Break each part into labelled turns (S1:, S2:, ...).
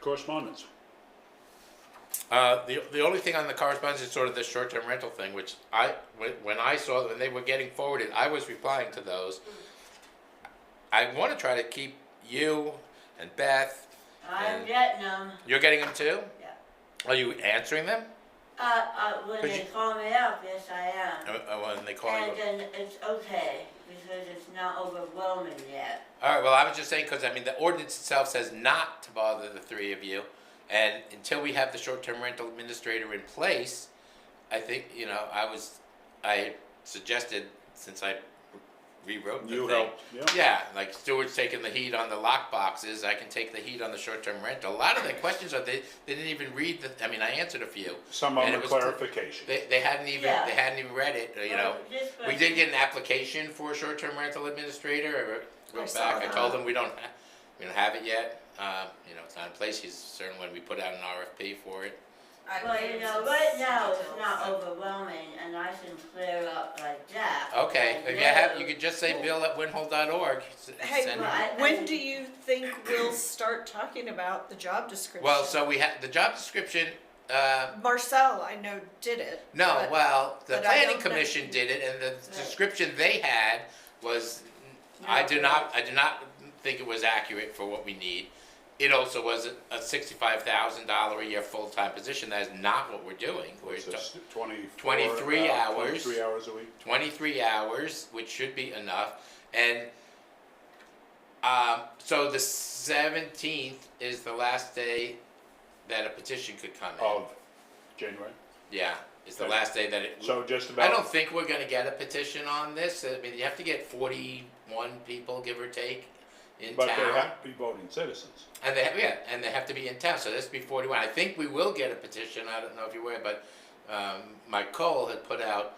S1: Correspondence.
S2: Uh, the, the only thing on the correspondence is sort of this short-term rental thing, which I, when, when I saw, when they were getting forwarded, I was replying to those. I wanna try to keep you and Beth,
S3: I'm
S2: Yeah.
S3: getting them,
S2: you're getting them too?
S3: yeah.
S2: Are you answering them?
S3: Uh, uh, when
S2: Could
S3: they
S2: you-
S3: call me up, yes, I
S2: Uh,
S3: am.
S2: uh, when they call you?
S3: And then it's okay, because it's not overwhelming yet.
S2: All right. Well, I was just saying because I mean the ordinance itself says not to bother the three of you, and until we have the short-term rental administrator in place, I think you know I was, I suggested since I rewrote the
S1: You
S2: thing.
S1: helped, yeah.
S2: like Stuart's taking the heat on the lock boxes. I can take the heat on the short-term rental. A lot of the questions are they they didn't even read the. I mean, I answered a few.
S1: Some of
S2: And
S1: them are
S2: it was-
S1: clarification.
S2: They, they hadn't even
S3: Yeah.
S2: they hadn't even read it. uh, You know.
S3: Well, this
S2: We
S3: was-
S2: did get an application for a short-term rental administrator, I
S4: I
S2: wrote
S4: saw
S2: back, I
S4: that.
S2: told him we don't, ha- we don't have it yet. Um, you know, it's not in place, he's certain when we put out an RFP for it.
S3: Well, you know, right now it's not overwhelming and I can clear up like that.
S2: Okay,
S3: I
S2: if you have, you
S3: know.
S2: could just say bill at winhole.org. s-
S4: Hey,
S2: send
S3: well,
S2: him-
S3: I-
S4: when do you think we'll start talking about the job description?
S2: Well, so we had, the job description, uh,
S4: Marcel, I know, did it.
S2: No,
S4: but-
S2: well, the
S4: but I
S2: planning
S4: don't know.
S2: commission did it, and the description they had was, I do
S3: No.
S2: not, I do not think it was accurate for what we need. It also was a sixty-five thousand dollar a year full-time position, that is not what we're doing. We're
S1: It's just
S2: t-
S1: 24
S2: 23
S1: uh,
S2: hours.
S1: Twenty-three hours a week.
S2: twenty-three hours, which should be enough, and, um, so the seventeenth is the last day that a petition could come in.
S1: Of January.
S2: Yeah, it's the
S1: Oh. Okay.
S2: last day that it.
S1: So just
S2: I
S1: about.
S2: don't think we're gonna get a petition on this, I mean, you have to get forty-one people, give or take, in
S1: But they
S2: town.
S1: have to be voting citizens.
S2: And they, yeah, and they have to be in town, so this be forty-one, I think we will get a petition, I don't know if you were, but, um, Mike Cole had put out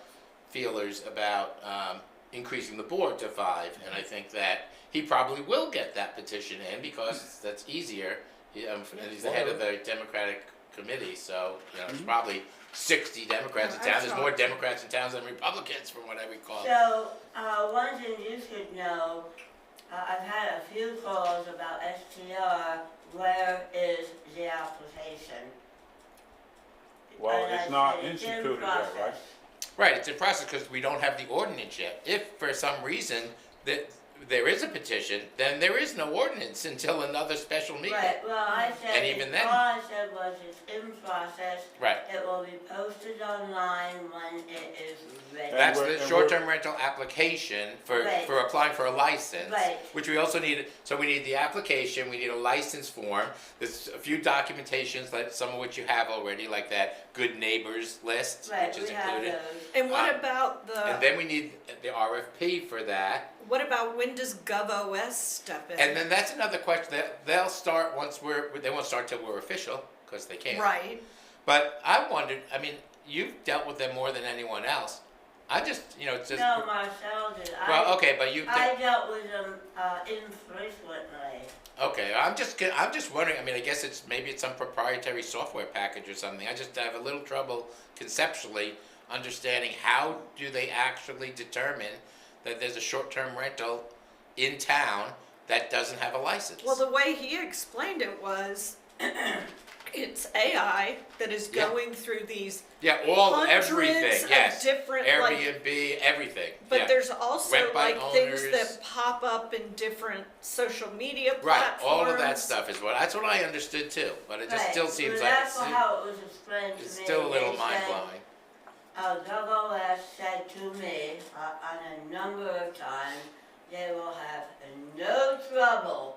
S2: feelers about, um, increasing the board to five, and I think that he probably will get that petition in, because that's easier. He, um, and he's the head of the Democratic committee, so, you know, it's probably sixty Democrats in
S4: Yeah, I
S2: town, there's
S4: saw
S2: more
S4: it.
S2: Democrats in towns than Republicans, from what I recall.
S3: So, uh, one thing you should know, uh, I've had a few calls about STR, where is the application?
S1: Well,
S3: And I
S1: it's not
S3: said, "It's in
S1: instituted yet, right?
S3: process."
S2: Right, it's in process because we don't have the ordinance yet. If for some reason that there is a petition, then there is no ordinance until another special meeting.
S3: Right, well, I said,
S2: And even
S3: it's-
S2: then-
S3: all I said was it's in process.
S2: Right.
S3: It will be posted online when it is ready.
S1: That-
S2: That's
S1: we're-
S2: the
S1: and we're-
S2: short-term rental application for,
S3: Right.
S2: for applying for a license.
S3: Right.
S2: Which we also need, so we need the application, we need a license form. There's a few documentations, like some of which you have already, like that good neighbors list,
S3: Right,
S2: which is
S3: we have
S2: included.
S3: those.
S4: And what
S2: Uh,
S4: about the?
S2: And then we need the RFP for that.
S4: what about when does GovOS step in?
S2: And then that's another question that they'll start once we're, they won't start till we're official, because they can't.
S4: right.
S2: But I wondered, I mean, you've dealt with them more than anyone else. I just, you know, it's just.
S3: No, Marcel did. I-
S2: Well, okay, but you,
S3: I dealt with them, uh, infrequently.
S2: okay, I'm just, ki- I'm just wondering, I mean, I guess it's, maybe it's some proprietary software package or something. I just have a little trouble conceptually understanding how do they actually determine that there's a short-term rental in town that doesn't have a license?
S4: Well, the way he explained it was, it's AI that is
S2: Yeah.
S4: going through these
S2: Yeah, all,
S4: hundreds
S2: everything,
S4: of
S2: yes.
S4: different like
S2: Airbnb, everything.
S4: But
S2: yeah.
S4: there's also
S2: Rent by
S4: like things
S2: owners.
S4: that pop up in different social media
S2: right,
S4: platforms.
S2: all of that stuff is what that's what I understood too. But it just
S3: Right,
S2: still
S3: but
S2: seems like
S3: That's
S2: it's,
S3: how it was explained to me.
S2: it's still a little
S3: They
S2: mind
S3: said,
S2: blowing.
S3: Uh, WS said to me, uh, on a number of times, they will have no trouble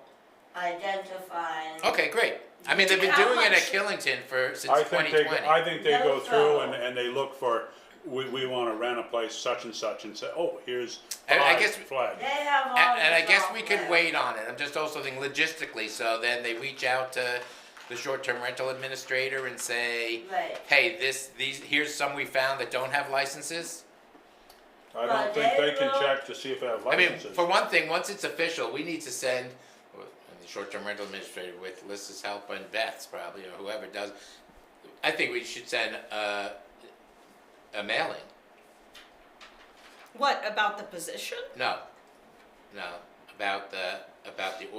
S3: identifying.
S2: Okay, great. I mean, they've been
S4: How
S2: doing it at
S4: much-
S2: Killington for since
S1: I think
S2: 2020.
S1: they, I think they
S3: No
S1: go through and,
S3: trouble.
S1: and they look for, we, we wanna rent a place such and such and say, oh, here's
S2: And I
S1: five
S2: guess-
S1: flag.
S3: They have
S4: Oh,
S3: all the
S2: and, and I guess we could
S3: software.
S2: wait on it. I'm just also thinking logistically. So then they reach out to the short-term rental administrator and say,
S3: Right.
S2: "Hey, this these here's some we found that don't have licenses."
S1: I
S3: Well,
S1: don't think
S3: they
S1: they can
S3: will-
S1: check to see if they have
S2: I mean,
S1: licenses.
S2: for one thing, once it's official, we need to send, and the short-term rental administrator with Lisa's help and Beth's probably, or whoever does, I think we should send a, a mailing.
S4: What about the position?
S2: No, no, about the, about the